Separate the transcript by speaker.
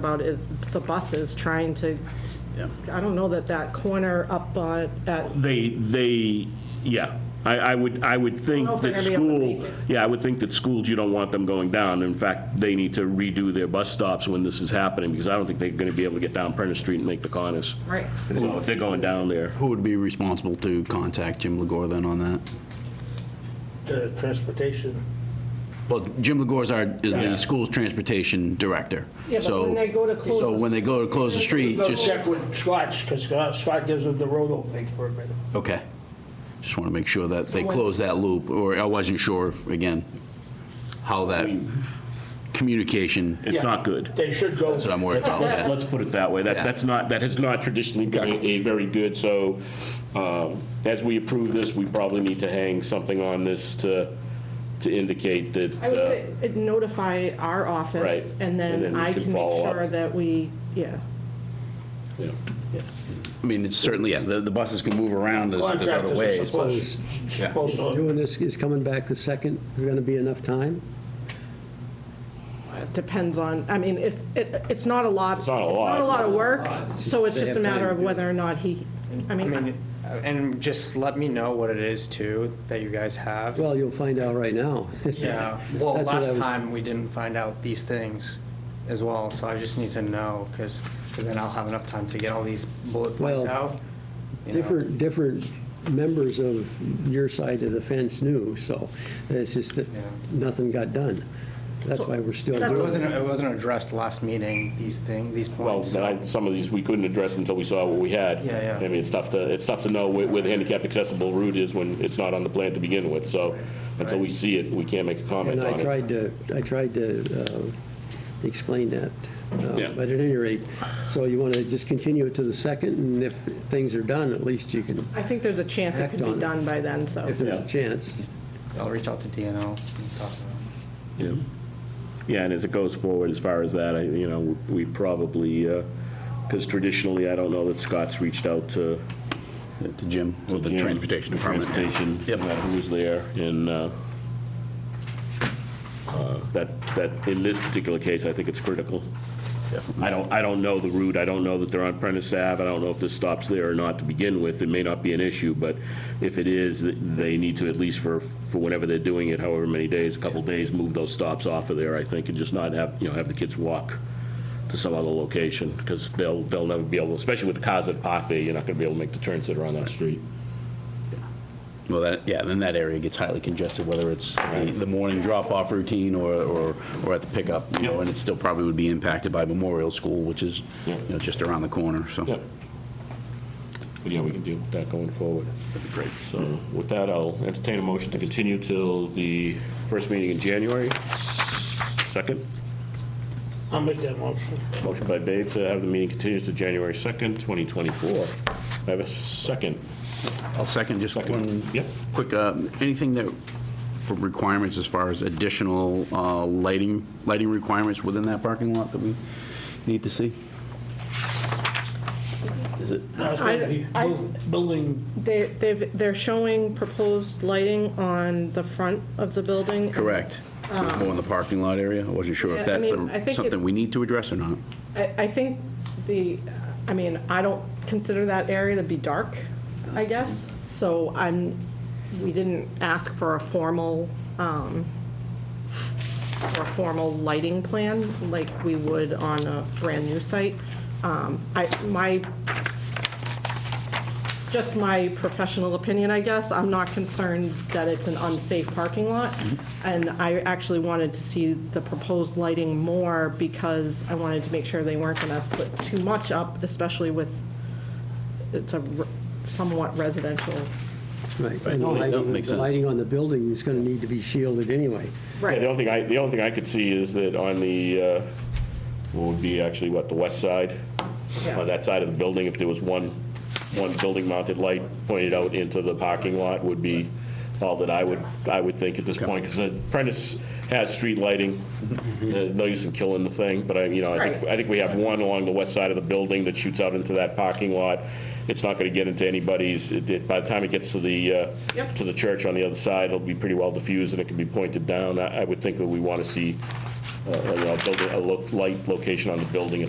Speaker 1: about is the buses trying to,
Speaker 2: Yeah.
Speaker 1: I don't know that that corner up on, at,
Speaker 2: They, they, yeah, I, I would, I would think
Speaker 1: know if they're
Speaker 2: that
Speaker 1: gonna be able to make
Speaker 2: school,
Speaker 1: it.
Speaker 2: yeah, I would think that schools, you don't want them going down. In fact, they need to redo their bus stops when this is happening, because I don't think they're gonna be able to get down Prentice Street and make the corners.
Speaker 1: right,
Speaker 2: So If they're going down there.
Speaker 3: Who would be responsible to contact Jim Legore then on that?
Speaker 4: the transportation.
Speaker 3: Well, Jim Legore is our, is
Speaker 2: Yeah.
Speaker 3: the school's transportation director.
Speaker 1: Yeah, but
Speaker 3: So-
Speaker 1: when they go to close
Speaker 3: So
Speaker 1: the-
Speaker 3: when they go to close the street, just,
Speaker 4: Check with Scotts, because Scott gives them the road opening permit.
Speaker 3: okay. Just want to make sure that they
Speaker 1: So when-
Speaker 3: close that loop, or I wasn't sure, if, again, how that communication,
Speaker 2: It's not good.
Speaker 4: They should go.
Speaker 3: that's what I'm worried about.
Speaker 2: Let's-
Speaker 3: okay.
Speaker 2: Let's put it that way. That,
Speaker 3: Yeah.
Speaker 2: that's not, that has not traditionally been a very good, so um, as we approve this, we probably need to hang something on this to, to indicate that.
Speaker 1: I would
Speaker 2: uh,
Speaker 1: say it notify our office,
Speaker 2: Right.
Speaker 1: and
Speaker 2: And then
Speaker 1: then
Speaker 2: we
Speaker 1: I
Speaker 2: can
Speaker 1: can make
Speaker 2: follow up.
Speaker 1: sure that we, yeah.
Speaker 2: yeah.
Speaker 3: I mean, it's certainly, yeah, the the buses can move around, there's there's other
Speaker 4: Contractors are
Speaker 3: ways. but-
Speaker 4: supposed, supposed to.
Speaker 5: Doing this is coming back the second, there's gonna be enough time?
Speaker 1: It Depends on, I mean, if, it, it's not a lot. It's
Speaker 2: not a lot.
Speaker 1: It's not a lot of work, so it's
Speaker 5: They
Speaker 1: just a
Speaker 5: have
Speaker 1: matter
Speaker 5: time
Speaker 1: of
Speaker 5: to do
Speaker 1: whether or not he, I
Speaker 6: I mean, uh,
Speaker 1: mean,
Speaker 6: and just let me know what it is too that you guys have.
Speaker 5: Well, you'll find out right now.
Speaker 6: yeah. Well,
Speaker 5: That's what I
Speaker 6: last
Speaker 5: was-
Speaker 6: time we didn't find out these things as well, so I just need to know because then I'll have enough time to get all these bullet points
Speaker 5: Well,
Speaker 6: out. you know.
Speaker 5: Different, different members of your side of the fence knew, so it's just that
Speaker 6: Yeah.
Speaker 5: nothing got done. That's why we're still
Speaker 1: That's-
Speaker 6: It
Speaker 5: doing it.
Speaker 6: wasn't. It wasn't addressed last meeting. These thing. These
Speaker 2: Well,
Speaker 6: points.
Speaker 2: now, some of these we couldn't address until we saw what we had.
Speaker 6: Yeah, yeah.
Speaker 2: I mean, it's tough to, it's tough to know where where the handicap accessible route is when it's not on the plan to begin with, so until we see it, we can't make a comment
Speaker 5: And
Speaker 2: on it.
Speaker 5: I tried to, I tried to uh, explain that. Uh,
Speaker 2: Yeah.
Speaker 5: But at any rate, so you want to just continue it to the second, and if things are done, at least you can,
Speaker 1: I think there's a chance it
Speaker 5: Act
Speaker 1: could
Speaker 5: on
Speaker 1: be
Speaker 5: it.
Speaker 1: done by then, so.
Speaker 5: if there's a chance.
Speaker 6: I'll reach out to DNO. And talk to them.
Speaker 2: Yeah. Yeah, and as it goes forward, as far as that, I, you know, we probably, because traditionally, I don't know that Scott's reached out to
Speaker 3: To Jim, or the
Speaker 2: Jim,
Speaker 3: transportation department.
Speaker 2: Transportation,
Speaker 3: Yep.
Speaker 2: uh, who was there, and uh, uh, that, that, in this particular case, I think it's critical. I don't, I don't know the route, I don't know that they're on Prentice Ave, I don't know if this stops there or not to begin with, it may not be an issue, but if it is, th- they need to, at least for, for whenever they're doing it, however many days, a couple days, move those stops off of there, I think, and just not have, you know, have the kids walk to some other location, because they'll, they'll never be able, especially with the cars that park there, you're not gonna be able to make the turns that are on that street.
Speaker 3: Well, that, yeah, then that area gets highly congested, whether it's the the morning drop-off routine or, or or at the pickup, you know, and it still probably would be impacted by Memorial School, which is, you know, just around the corner, so.
Speaker 2: Yep. But yeah, we can deal with that going forward. That'd be great. So with that, I'll entertain a motion to continue till the first meeting in January. Second,
Speaker 4: I'll make that motion.
Speaker 2: motion by Babe to have the meeting continued to January 2nd, 2024. I have a second.
Speaker 3: I'll second, just one
Speaker 2: Second. Yep.
Speaker 3: quick, uh, anything that, for requirements as far as additional uh, lighting, lighting requirements within that parking lot that we need to see? Is it?
Speaker 4: Now it's gonna be
Speaker 1: I- I-
Speaker 4: bu- Building,
Speaker 1: They, they've, they're showing proposed lighting on the front of the building.
Speaker 3: Correct. More in the parking lot area? I wasn't sure if
Speaker 1: Yeah, I
Speaker 3: that's
Speaker 1: mean, I think
Speaker 3: a-
Speaker 1: it-
Speaker 3: something we need to address or not.
Speaker 1: I, I think the, I mean, I don't consider that area to be dark, I guess, so I'm, we didn't ask for a formal, um, for a formal lighting plan like we would on a brand-new site. Um, I, my, just my professional opinion, I guess, I'm not concerned that it's an unsafe parking lot. And I actually wanted to see the proposed lighting more because I wanted to make sure they weren't going to put too much up, especially with, it's a re- somewhat residential.
Speaker 5: Right, and the
Speaker 3: No, Oh, that
Speaker 5: lighting,
Speaker 3: makes
Speaker 5: the
Speaker 3: sense.
Speaker 5: lighting on the building is gonna need to be shielded anyway.
Speaker 2: Yeah, the only thing I, the only thing I could see is that on the, uh, what would be actually, what, the west side?
Speaker 1: Yeah.
Speaker 2: On that side of the building, if there was one, one building-mounted light pointed out into the parking lot would be all that I would, I would think at this point, because Prentice has street lighting, Uh, no use in killing the thing, but I, you know, I think,
Speaker 1: Mm-hmm. Right.
Speaker 2: I think we have one along the west side of the building that shoots out into that parking lot. It's not going to get into anybody's, it- it- by the time it gets to the, uh,
Speaker 1: Yep.
Speaker 2: to the church on the other side, it'll be pretty well diffused and it can be pointed down. I I would think that we want to see uh, you know, build a lo- light location on the building at the